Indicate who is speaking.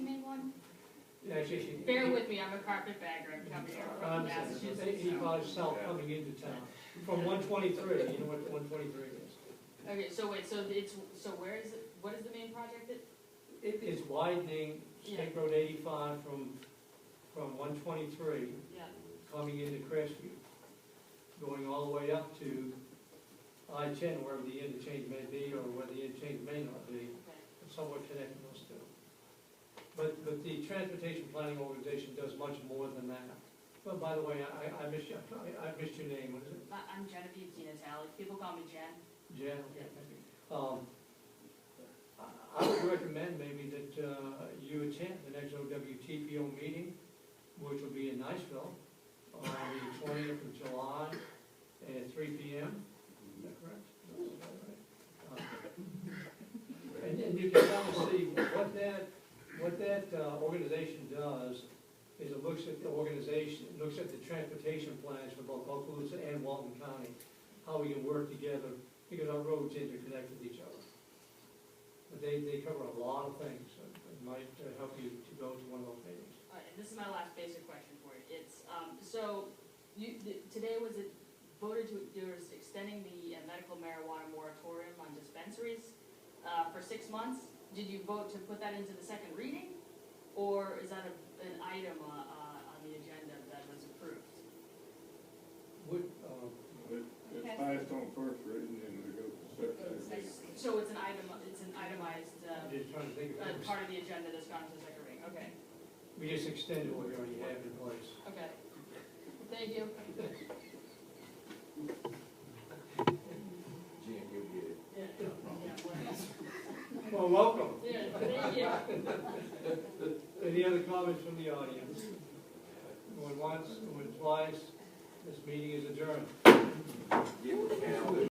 Speaker 1: digestion.
Speaker 2: Bear with me, I'm a carpetbagger, I'm coming here from
Speaker 1: Um,
Speaker 2: Massachusetts.
Speaker 1: Any
Speaker 2: so-
Speaker 1: college south coming into town, from one twenty-three, you know what one twenty-three is?
Speaker 2: Okay, so wait, so it's, so where is it, what is the main project that,
Speaker 1: It is widening State Road eighty-five from, from one twenty-three
Speaker 2: yeah,
Speaker 1: coming into Crestview, going all the way up to I-10, wherever the interchange may be, or where the interchange may not be,
Speaker 2: okay.
Speaker 1: somewhat connecting those two. But, but the transportation planning organization does much more than that. But by the way, I, I missed you, I I missed your name, what is it?
Speaker 2: I- Uh, I'm Genevieve Dinatale, people call me Jen.
Speaker 1: Jan? Um, I- I would recommend maybe that uh, you attend the next OWTPO meeting, which will be in Niceville on the twentieth of July at three P M. Is that correct? Uh, And and you can kind of see what that, what that uh, organization does is it looks at the organization, it looks at the transportation plans for both Okaloosa and Walton County, how we can work together because our roads interconnect with each other. But they, they cover a lot of things, so it might uh, help you to go to one of those meetings.
Speaker 2: All right, this is my last basic question for you. It's, um, so, you, th- today was it voted to, there was extending the uh, medical marijuana moratorium on dispensaries, uh, for six months. Did you vote to put that into the second reading? Or is that a, an item, uh, uh, on the agenda that was approved?
Speaker 1: Would, um,
Speaker 3: It, it passed on first reading and we go to second.
Speaker 2: So it's an item, it's an itemized, uh,
Speaker 1: I'm just trying to think of
Speaker 2: uh,
Speaker 1: it.
Speaker 2: part of the agenda that's gone to the second reading, okay,
Speaker 1: We just extended what we already have in place.
Speaker 2: okay. Thank you.
Speaker 4: Jim, you'll get it.
Speaker 2: Yeah, yeah, well,
Speaker 1: Well, welcome.
Speaker 2: yeah, thank you.
Speaker 1: Any other comments from the audience? Going once, going twice, this meeting is adjourned.